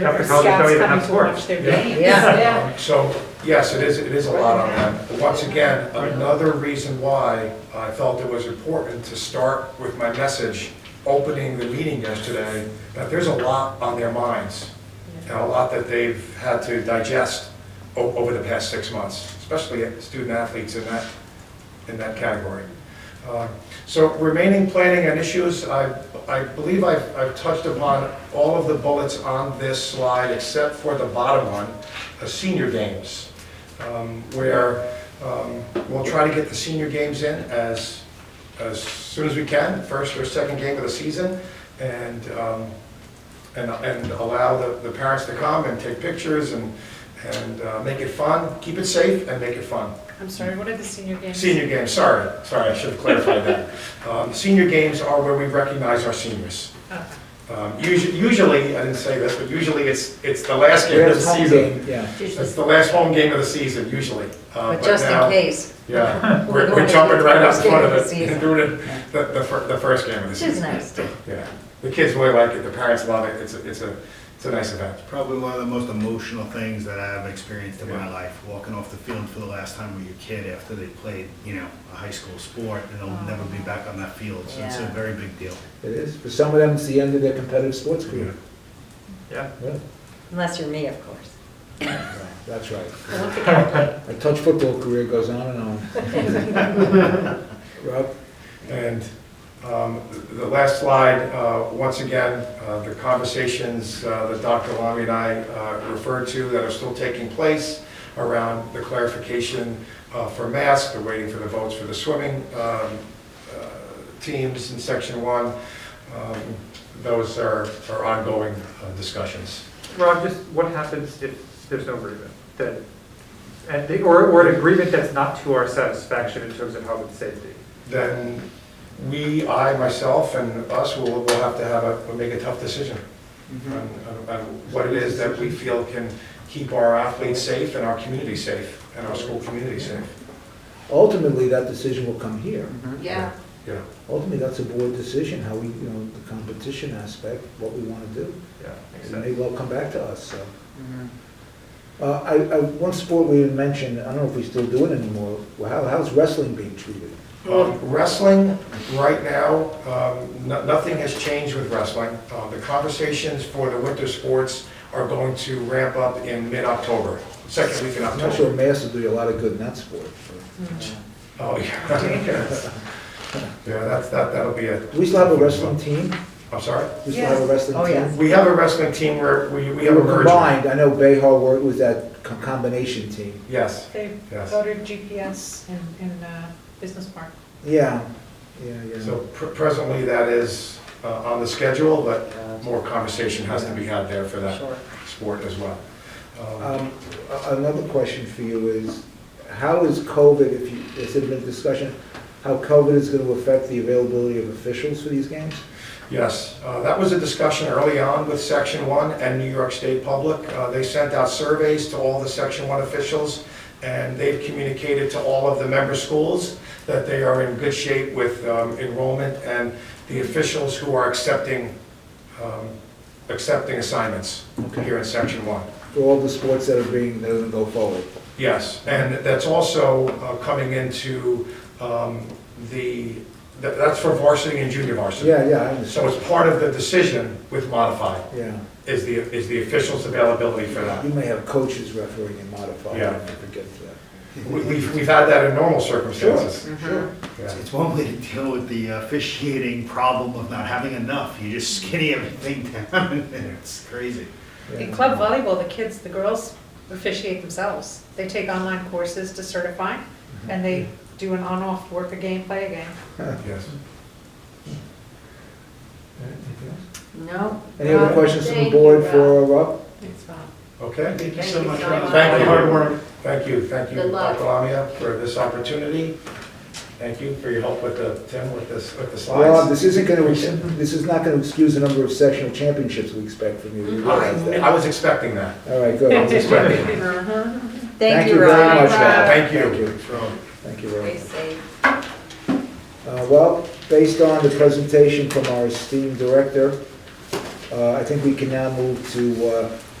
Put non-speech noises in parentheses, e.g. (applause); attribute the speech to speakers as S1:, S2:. S1: Catholic colleges don't
S2: Scouts
S1: even
S2: coming
S1: have
S2: to watch
S1: sports.
S2: their
S3: Yeah.
S2: games.
S4: Yeah.
S3: So, yes, it is, it is a lot on them. But Once again, another reason why I felt it was important to start with my message, opening the meeting yesterday, that there's a lot on their minds, and a lot that they've had to digest o- over the past six months, especially student athletes in that, in that category. Uh, So remaining planning and issues, I, I believe I've, I've touched upon all of the bullets on this slide except for the bottom one, uh, senior games, um, where um, we'll try to get the senior games in as, as soon as we can, first or second game of the season, and, um, and, and allow the, the parents to come and take pictures and, and uh, make it fun, keep it safe and make it fun.
S2: I'm sorry, what are the senior games?
S3: Senior games, sorry, sorry, I should have clarified
S4: (laughs)
S3: that. Um, Senior games are where we recognize our seniors.
S2: Oh.
S3: Um, usu- Usually, I didn't say this, but usually it's, it's the last game of the season.
S4: Yeah.
S3: It's the last home game of the season, usually. Uh,
S4: But just in
S3: now-
S4: case, (laughs)
S3: Yeah, we're
S4: We're
S3: we're jumping right out
S4: going
S3: front
S4: to the
S3: of
S4: first
S3: it
S4: game
S3: and
S4: of
S3: doing it the, the fir- the first game of the
S4: which
S3: season.
S4: is nice.
S3: Yeah, the kids really like it, the parents love it, it's, a- it's a, it's a nice event.
S5: Probably one of the most emotional things that I've experienced in my life, walking off the field for the last time with your kid after they played, you know, a high school sport, and they'll never be back on that field, so it's a
S4: Yeah.
S5: very big deal.
S6: It is. For some of them, it's the end of their competitive sports career.
S1: Yeah.
S6: Yeah,
S4: Unless you're me, of course.
S6: that's right.
S2: Olympic athlete.
S6: (laughs) My touch football career goes on and on. Rob?
S3: And um, the last slide, uh, once again, uh, the conversations uh, that Dr. Lamy and I uh, referred to that are still taking place around the clarification uh, for masks, they're waiting for the votes for the swimming um, uh, teams in section one. Um, Those are are ongoing uh, discussions.
S1: Rob, just what happens if there's no agreement? That, and, the- or, or an agreement that's not to our satisfaction in terms of health and safety?
S3: Then we, I, myself, and us will will have to have a, will make a tough decision. on- on on what it is that we feel can keep our athletes safe and our community safe and our school community safe.
S6: Ultimately, that decision will come here.
S4: Yeah.
S3: Yeah,
S6: Ultimately, that's a board decision, how we, you know, the competition aspect, what we want to do.
S1: Yeah, makes
S6: It
S1: sense.
S6: may well come back to us, so. Uh, I, I, one sport we didn't mention, I don't know if we still do it anymore, well, how, how's wrestling being treated?
S3: Um, Wrestling, right now, um, no- nothing has changed with wrestling. Uh, The conversations for the winter sports are going to ramp up in mid-October, second week in
S6: I'm not sure
S3: October.
S6: mass will do you a lot of good in that sport.
S2: Hmm.
S6: but-
S3: Oh, yeah. (laughs) Yeah, that's, that, that'll be it.
S6: Do we still have a wrestling team?
S3: I'm sorry?
S6: We still have a wrestling
S4: Oh,
S6: team?
S4: yes.
S3: We have a wrestling team where we, we
S6: We
S3: have a
S6: were
S3: merger.
S6: combined, I know Behar were- was that co- combination team.
S3: Yes,
S2: They
S3: yes.
S2: voted GPS in, in uh, Business Park.
S6: Yeah, yeah, yeah.
S3: So pr- presently, that is uh, on the schedule, but more conversation has to be had there for that sport as well. Um,
S6: Um, a- Another question for you is, how is COVID, if you, has there been discussion, how COVID is going to affect the availability of officials for these games?
S3: Yes, uh, that was a discussion early on with Section 1 and New York State Public. Uh, They sent out surveys to all the Section 1 officials, and they've communicated to all of the member schools that they are in good shape with um, enrollment and the officials who are accepting, um, accepting assignments
S6: Okay.
S3: here in Section 1.
S6: For all the sports that are being, that are going to go forward?
S3: Yes, and that's also uh, coming into um, the, that- that's for varsity and junior varsity.
S6: Yeah, yeah, I
S3: So
S6: understand,
S3: it's part of the decision with modified,
S6: yeah.
S3: is the, is the official's availability for that.
S6: You may have coaches refereeing and modifying,
S3: Yeah.
S6: if we get to that.
S3: We- We've, we've had that in normal circumstances.
S6: Sure.
S3: Yeah.
S5: It's one way to deal with the officiating problem of not having enough, you just skinny everything (laughs) down, and it's crazy.
S6: yeah.
S2: In club volleyball, the kids, the girls officiate themselves. They take online courses to certify, and they do an on-off, work a game, play a game.
S3: Yes.
S6: Anything else?
S4: No. uh,
S6: Any other questions from the board for Rob?
S2: It's fun.
S3: Okay?
S5: Thank
S4: you so much, Rob.
S3: Thank you. Hard work. Thank you, thank you,
S4: Good luck.
S3: Dr. Lamia, for this opportunity. Thank you for your help with the, Tim, with this, with the
S6: Rob,
S3: slides.
S6: this isn't going to, this is not going to excuse the number of sectional championships we expect from you. You realize
S3: I
S6: that?
S3: I was expecting that.
S6: All right, good.
S2: (laughs)
S6: I was expecting.
S4: Thank you, Rob.
S6: very much, Rob.
S3: Thank you.
S6: Thank you very
S4: Stay
S6: much.
S4: safe.
S6: Uh, Well, based on the presentation from our esteemed director, Uh, I think we can now move to uh,